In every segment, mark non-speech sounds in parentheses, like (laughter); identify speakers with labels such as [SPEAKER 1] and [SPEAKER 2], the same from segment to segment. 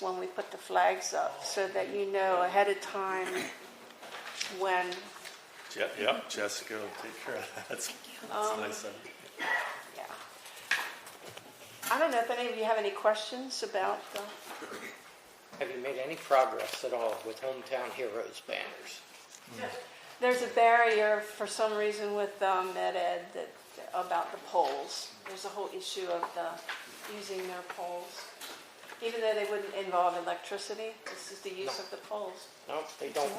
[SPEAKER 1] when we put the flags up so that you know ahead of time when,
[SPEAKER 2] Je- Yep, Jessica will take care of that. That's that's
[SPEAKER 1] Um,
[SPEAKER 2] nice of you.
[SPEAKER 1] yeah. I don't know if any of you have any questions about the,
[SPEAKER 3] Have you made any progress at all with Hometown Heroes banners?
[SPEAKER 1] there's a barrier for some reason with um, Med Ed that, about the polls. There's a whole issue of the, using their polls. Even though they wouldn't involve electricity, this is the use of the polls.
[SPEAKER 3] No, they don't.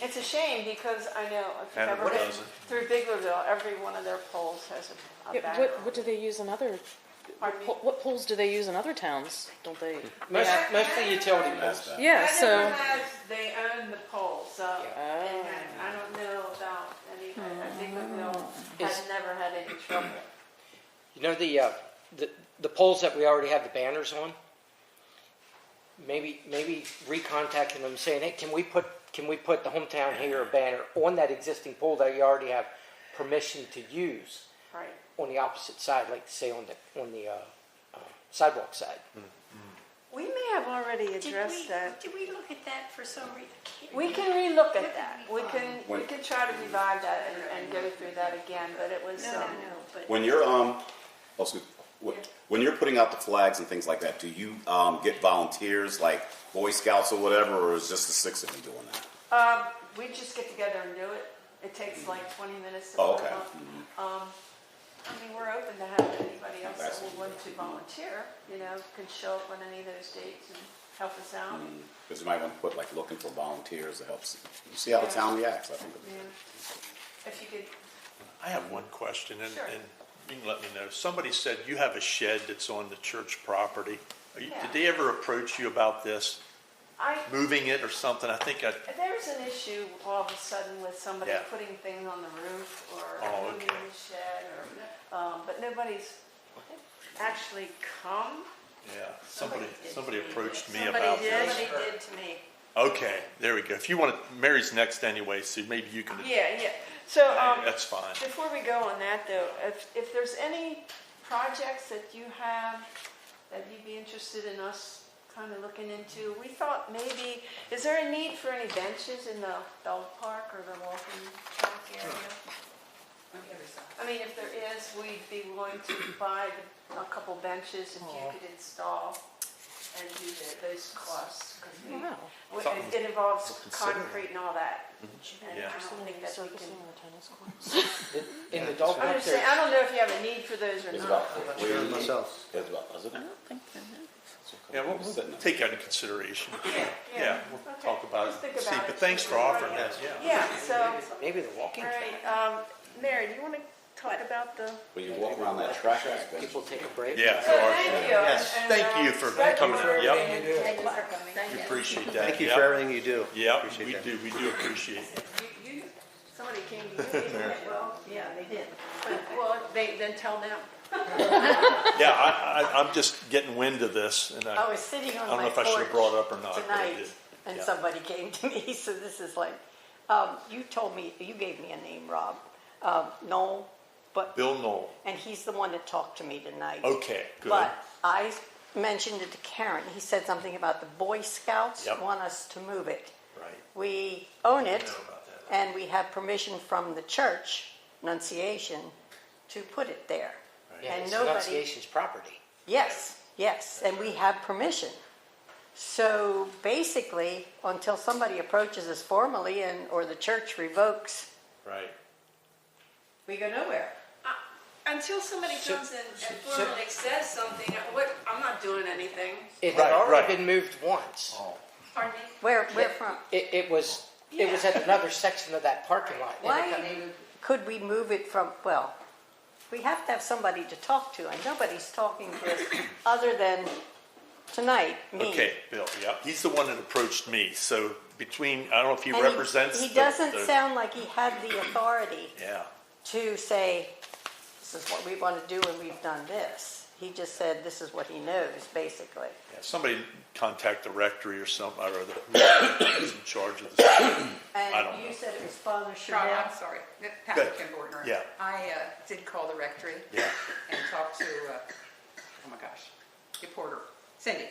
[SPEAKER 1] It's a shame because I know if you've
[SPEAKER 2] Hanover
[SPEAKER 1] ever been
[SPEAKER 2] does it.
[SPEAKER 1] through Biglerville, every one of their polls has a- a
[SPEAKER 4] Yeah,
[SPEAKER 1] banner.
[SPEAKER 4] what, what do they use in other,
[SPEAKER 1] Pardon me?
[SPEAKER 4] po- what polls do they use in other towns? Don't they?
[SPEAKER 3] Most, mostly utility poles.
[SPEAKER 4] Yeah, so,
[SPEAKER 1] Hanover has, they own the polls, so, and I don't know about any, I think Biglerville has
[SPEAKER 3] Is-
[SPEAKER 1] never had any trouble.
[SPEAKER 3] You know the, uh, the, the poles that we already have the banners on? Maybe, maybe recontacting them saying, hey, can we put, can we put the Hometown Hero banner on that existing pole that you already have permission to use
[SPEAKER 1] Right,
[SPEAKER 3] on the opposite side, like say on the, on the, uh, uh, sidewalk side?
[SPEAKER 1] we may have already
[SPEAKER 5] Did
[SPEAKER 1] addressed
[SPEAKER 5] we-
[SPEAKER 1] that.
[SPEAKER 5] Did we look at that for some reason?
[SPEAKER 1] We can relook at that, we can, we can try to revive that and, and go through that again, but it was,
[SPEAKER 5] No, no,
[SPEAKER 1] um,
[SPEAKER 5] no, but.
[SPEAKER 6] When you're um, oh, excuse, wh- when you're putting out the flags and things like that, do you um, get volunteers like Boy Scouts or whatever, or is just the six of you doing that?
[SPEAKER 1] um, we just get together and do it. It takes like twenty minutes to
[SPEAKER 6] Oh,
[SPEAKER 1] work
[SPEAKER 6] okay.
[SPEAKER 1] on. Um, I mean, we're open to have anybody else that will want to volunteer, you know, can show up on any of those dates and help us out.
[SPEAKER 6] Mm-hmm. Because you might want to put like looking for volunteers to help. s- You see how the town reacts. I think. it'd be-
[SPEAKER 1] Yeah. If you could,
[SPEAKER 2] I have one question, and,
[SPEAKER 1] Sure.
[SPEAKER 2] and you can let me know. Somebody said you have a shed that's on the church property. Are you-
[SPEAKER 1] Yeah.
[SPEAKER 2] Did they ever approach you about this,
[SPEAKER 1] I,
[SPEAKER 2] moving it or something? I think I,
[SPEAKER 1] there's an issue all of a sudden with somebody
[SPEAKER 2] Yeah.
[SPEAKER 1] putting things on the roof or
[SPEAKER 2] Oh,
[SPEAKER 1] moving
[SPEAKER 2] okay.
[SPEAKER 1] the shed or, um, but nobody's actually come.
[SPEAKER 2] yeah, somebody,
[SPEAKER 5] Somebody did.
[SPEAKER 2] somebody approached me
[SPEAKER 5] Somebody
[SPEAKER 2] about
[SPEAKER 5] did,
[SPEAKER 2] this.
[SPEAKER 5] Somebody did to me.
[SPEAKER 2] Okay, there we go. If you want to, Mary's next anyway, so maybe you can,
[SPEAKER 1] Yeah, yeah, so, um.
[SPEAKER 2] that's fine.
[SPEAKER 1] Before we go on that though, if, if there's any projects that you have that you'd be interested in us kind of looking into, we thought maybe, is there a need for any benches in the dog park or the walking track area? I mean, if there is, we'd be willing to buy a couple benches if you could install and do the- those costs. 'cause we-
[SPEAKER 4] wow.
[SPEAKER 1] we-
[SPEAKER 2] Something-
[SPEAKER 1] It involves
[SPEAKER 2] consider. Mm-hmm.
[SPEAKER 1] concrete and all that. And
[SPEAKER 2] Yeah.
[SPEAKER 1] I don't think that we can
[SPEAKER 3] In the dog
[SPEAKER 1] I'm
[SPEAKER 3] park
[SPEAKER 1] just saying,
[SPEAKER 3] there,
[SPEAKER 1] I don't know if you have a need for those or
[SPEAKER 6] It's
[SPEAKER 1] not.
[SPEAKER 6] about three. It's about is it?
[SPEAKER 2] Yeah, we'll, we'll
[SPEAKER 6] Sitting there.
[SPEAKER 2] take that into consideration. Yeah, we'll
[SPEAKER 1] Okay.
[SPEAKER 2] talk about
[SPEAKER 1] Just think
[SPEAKER 2] it. See,
[SPEAKER 1] about
[SPEAKER 2] but
[SPEAKER 1] it.
[SPEAKER 2] thanks for offering that, yeah.
[SPEAKER 1] Yeah, so, all
[SPEAKER 3] maybe the walking track.
[SPEAKER 1] right, um, Mary, do you want to talk about the?
[SPEAKER 6] When you walk around that track, it's been-
[SPEAKER 3] People take a break.
[SPEAKER 2] Yeah, there are.
[SPEAKER 1] Thank you.
[SPEAKER 7] Yes,
[SPEAKER 1] and,
[SPEAKER 2] thank
[SPEAKER 1] uh,
[SPEAKER 2] you for
[SPEAKER 1] thank you
[SPEAKER 2] coming
[SPEAKER 1] for
[SPEAKER 2] out. Yep.
[SPEAKER 1] everything you do.
[SPEAKER 5] Thank you for coming.
[SPEAKER 2] We appreciate that.
[SPEAKER 7] Thank you
[SPEAKER 2] Yep.
[SPEAKER 7] for everything you do.
[SPEAKER 2] Yeah,
[SPEAKER 7] Appreciate
[SPEAKER 2] we
[SPEAKER 7] that.
[SPEAKER 2] do, we do appreciate it. (laughs)
[SPEAKER 1] You- you- Somebody came to you, didn't they? well, yeah, they did. But- Well, they, then tell them.
[SPEAKER 2] Yeah, I, I, I'm just getting wind of this and
[SPEAKER 8] I
[SPEAKER 2] I,
[SPEAKER 8] was sitting
[SPEAKER 2] I
[SPEAKER 8] on
[SPEAKER 2] don't know
[SPEAKER 8] my
[SPEAKER 2] if I should have brought
[SPEAKER 8] porch
[SPEAKER 2] it up or not. but I
[SPEAKER 8] tonight,
[SPEAKER 2] did.
[SPEAKER 8] and
[SPEAKER 2] Yeah.
[SPEAKER 8] somebody (laughs) came to me, so this is like, um, you told me, you gave me a name, Rob, um, Noel, but,
[SPEAKER 2] Bill Knoll.
[SPEAKER 8] and he's the one that talked to me tonight.
[SPEAKER 2] Okay, good.
[SPEAKER 8] But I mentioned it to Karen, he said something about the Boy Scouts
[SPEAKER 2] Yep.
[SPEAKER 8] want us to move it.
[SPEAKER 2] Right.
[SPEAKER 8] We own it,
[SPEAKER 2] know about that.
[SPEAKER 8] and we have permission from the church, Nunciation, to put it there.
[SPEAKER 3] Yeah,
[SPEAKER 8] And
[SPEAKER 3] it's
[SPEAKER 8] nobody
[SPEAKER 3] Annunciation's property.
[SPEAKER 8] Yes, yes, and we have permission. So basically, until somebody approaches us formally and, or the church revokes,
[SPEAKER 2] Right.
[SPEAKER 8] we go nowhere.
[SPEAKER 1] Uh, Until somebody comes in and formally says something, what, I'm not doing anything.
[SPEAKER 3] It had
[SPEAKER 2] Right,
[SPEAKER 3] already
[SPEAKER 2] right. Oh.
[SPEAKER 3] been moved once.
[SPEAKER 1] Pardon me?
[SPEAKER 8] Where, where from?
[SPEAKER 3] It, it was, it was at another section of that parking lot. and it got
[SPEAKER 8] Why
[SPEAKER 3] moved.
[SPEAKER 8] could we move it from, well, we have to have somebody to talk to, and nobody's talking to us other than tonight, me.
[SPEAKER 2] Okay, Bill, yeah, he's the one that approached me, so between, I don't know if he
[SPEAKER 8] And he-
[SPEAKER 2] represents.
[SPEAKER 8] He
[SPEAKER 2] the-
[SPEAKER 8] doesn't
[SPEAKER 2] the-
[SPEAKER 8] sound like he had the authority.
[SPEAKER 2] Yeah,
[SPEAKER 8] to say, this is what we want to do and we've done this. He just said, this is what he knows, basically.
[SPEAKER 2] yeah, somebody contact the rectory or something, or the, who's in charge of this. I don't
[SPEAKER 8] And
[SPEAKER 2] know.
[SPEAKER 8] you said it was Father
[SPEAKER 9] Rob,
[SPEAKER 8] Chanel.
[SPEAKER 9] I'm sorry, This is
[SPEAKER 2] Good.
[SPEAKER 9] Pat Kim Bortner.
[SPEAKER 2] Yeah.
[SPEAKER 9] I uh, did call the rectory.
[SPEAKER 2] Yeah.
[SPEAKER 9] And talked to, uh, oh my gosh, the porter.
[SPEAKER 7] Cindy?